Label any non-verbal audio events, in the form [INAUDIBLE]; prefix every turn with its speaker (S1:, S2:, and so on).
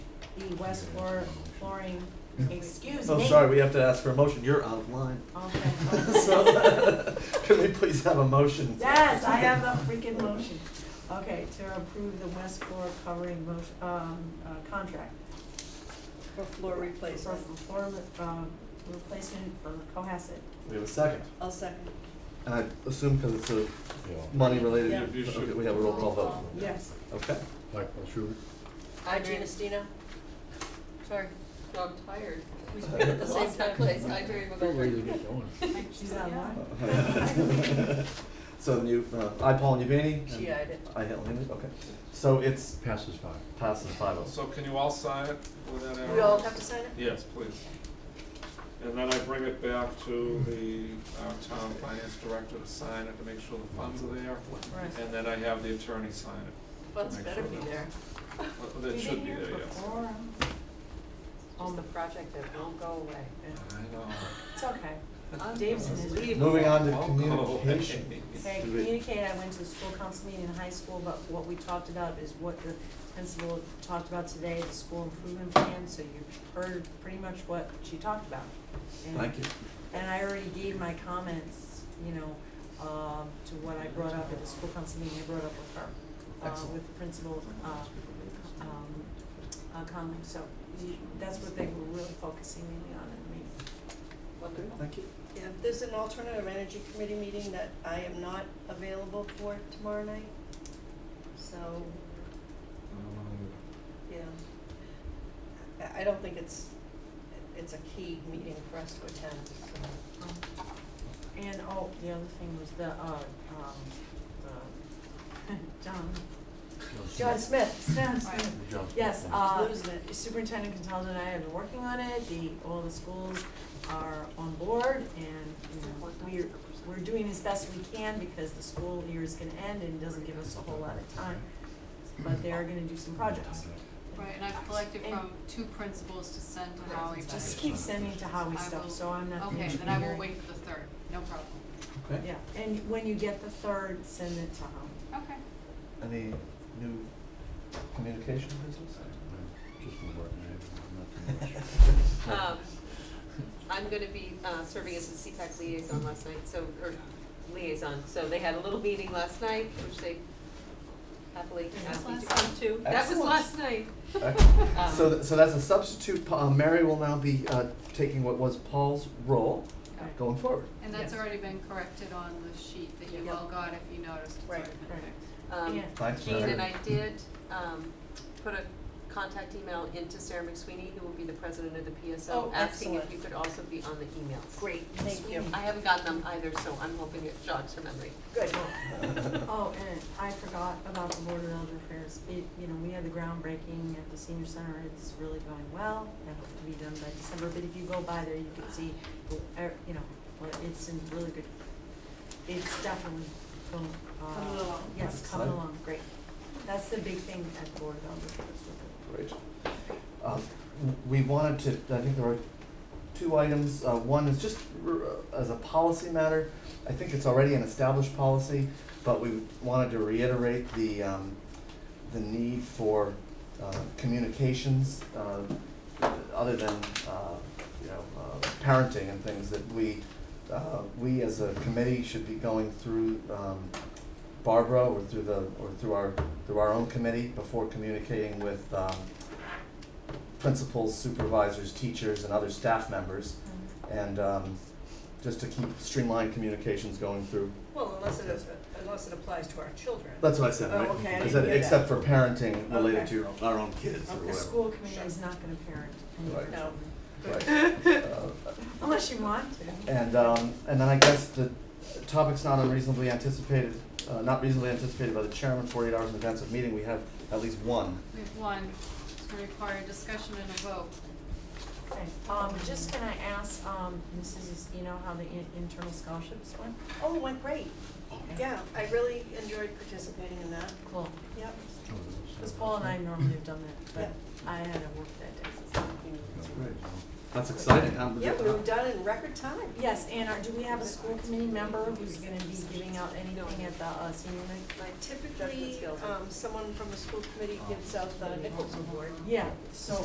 S1: the West Flor- flooring, excuse me.
S2: Oh, sorry, we have to ask for a motion. You're out
S1: [LAUGHS]
S2: of line. [LAUGHS]
S1: Okay.
S2: So, [LAUGHS] Can we please have a motion?
S1: Yes, I have a freaking motion. Okay, to approve the West floor covering motion, um, uh, contract.
S3: For floor
S1: For,
S3: replacement.
S1: for floor, um, replacement for Cohasset.
S2: We have a second.
S3: I'll second.
S2: And I assume because it's a money related,
S3: Yeah.
S2: okay, we have a roll call vote.
S1: Yes.
S2: Okay.
S4: Michael Schubert.
S5: I,
S3: Mary-
S5: Gina Stino. Sorry, no, I'm tired. We should
S2: Uh,
S5: be at the same time place. I, Jerry McGoldrick.
S1: She's online.
S2: [LAUGHS] So you, uh, I, Paul Nivini.
S5: She eyed it.
S2: I, Helen Hinman, okay. So it's
S4: Passes five.
S2: passes five oh.
S6: So can you all sign it with that arrow?
S5: We all have to sign it?
S6: Yes, please. And then I bring it back to the uh, town finance director to sign it to make sure the funds are there.
S1: Right.
S6: And then I have the attorney sign it.
S5: Funds
S6: Make
S5: better
S6: sure
S5: be
S6: that-
S5: there.
S6: Well, That should be there, yes.
S5: Just the
S1: Um,
S5: project that won't go away.
S6: I know.
S1: It's okay. Dave's in his lead.
S2: Moving on to
S6: I'll go.
S2: communication.
S1: Okay,
S2: Do we-
S1: communicate, I went to the school council meeting in high school, but what we talked about is what the principal talked about today, the school improvement plan, so you heard pretty much what she talked about. And-
S2: Thank you.
S1: And I already gave my comments, you know, um, to what I brought up at the school council meeting, I brought up with her, uh,
S2: Excellent.
S1: with the principal, uh, um, uh, comment, so you- that's what they were really focusing mainly on in the meeting.
S5: Wonderful.
S2: Thank you.
S3: Yeah, there's an alternative energy committee meeting that I am not available for tomorrow night. So,
S2: Um,
S3: you know, I, I don't think it's, it's a key meeting for us to attend, so.
S1: Um, And, oh, the other thing was the, uh, um, the, [LAUGHS] John,
S3: John Smith,
S1: Stan Smith. Yes, uh,
S3: Losing it.
S1: Superintendent Contaldo and I have been working on it, the, all the schools are on board, and, you know, we're, we're doing as best we can because the school year is gonna end and doesn't give us a whole lot of time, but they are gonna do some projects.
S7: Right, and I've collected
S1: And-
S7: from two principals to send to Holly. but-
S1: Just keep sending to Howie
S7: I
S1: stuff,
S7: will-
S1: so I'm not.
S7: Okay, then I will wait for the third, no problem.
S2: Okay.
S1: Yeah, and when you get the third, send it to Howie.
S7: Okay.
S2: Any new communication business?
S5: Um, I'm gonna be, uh, serving as the CPAC liaison last night, so, or liaison, so they had a little meeting last night, which they happily asked me to come to. That was
S2: Excellent.
S5: last night.
S2: Excellent. So,
S5: Um,
S2: th- so that's a substitute. Pa- uh, Mary will now be uh, taking what was Paul's role
S1: Okay.
S2: going forward.
S7: And that's
S1: Yes.
S7: already been corrected on the sheet that you
S5: Yeah.
S7: all got, if you noticed, it's already
S5: Right,
S7: been
S1: right.
S7: fixed.
S5: Um,
S1: Yeah.
S2: Thanks,
S5: Jean
S2: Mary.
S5: and I did, um, put a contact email into Sarah McSweeney, who will be the president of the PSO,
S3: Oh,
S5: asking if
S3: excellent.
S5: you could also be on the emails.
S3: great, thank you.
S5: I haven't gotten them either, so I'm hoping it jogs her memory.
S3: Good.
S2: [LAUGHS]
S1: Oh, and I forgot about the Board of Elder Affairs. It, you know, we had the groundbreaking at the senior center. It's really going well. I hope to be done by December, but if you go by there, you can see, uh, you know, well, it's in really good, it's definitely going, uh.
S3: Coming along.
S1: Yes, coming
S2: Excellent.
S1: along, great. That's the big thing at the Board of Elder Affairs. with
S2: Great. Um, We wanted to, I think there are two items. Uh, One is just uh, as a policy matter, I think it's already an established policy, but we wanted to reiterate the, um, the need for uh, communications, uh, other than, uh, you know, uh, parenting and things that we, uh, we as a committee should be going through um, Barbara or through the, or through our, through our own committee before communicating with um, principals, supervisors, teachers, and other staff members. And um, just to keep streamlined communications going through.
S3: Well, unless it is, unless it applies to our children.
S2: That's what I said,
S3: Oh,
S2: right?
S3: okay, I
S2: I
S3: didn't
S2: said,
S3: hear that.
S2: except for parenting related
S3: Okay.
S2: to your, own- our own kids or
S3: Okay.
S1: The
S2: whatever.
S1: school committee is not gonna parent any of
S2: Right.
S1: their
S3: No.
S1: children,
S2: Right. Uh,
S1: unless you want to.
S2: And, um, and then I guess the topic's not unreasonably anticipated, uh, not reasonably anticipated by the chairman, forty-eight hours in advance of meeting, we have at least one.
S7: We have one, it's gonna require a discussion and a vote.
S1: Okay, um, just can I ask, um, Mrs. Estino how the in- internal scholarships went?
S3: Oh, it went great.
S1: Okay.
S3: Yeah, I really enjoyed participating in that.
S1: Cool,
S3: Yep.
S1: [LAUGHS] because Paul and I normally have done that, but I had to work that day. so-
S2: That's exciting, Um,
S3: Yeah, we were done in record time.
S1: Yes, and our, do we have a school committee member who's gonna be giving out anything at the uh, senior night?
S5: Like,
S3: Typically, um, someone from the school committee gives out the Nichols Award.
S1: Yeah, so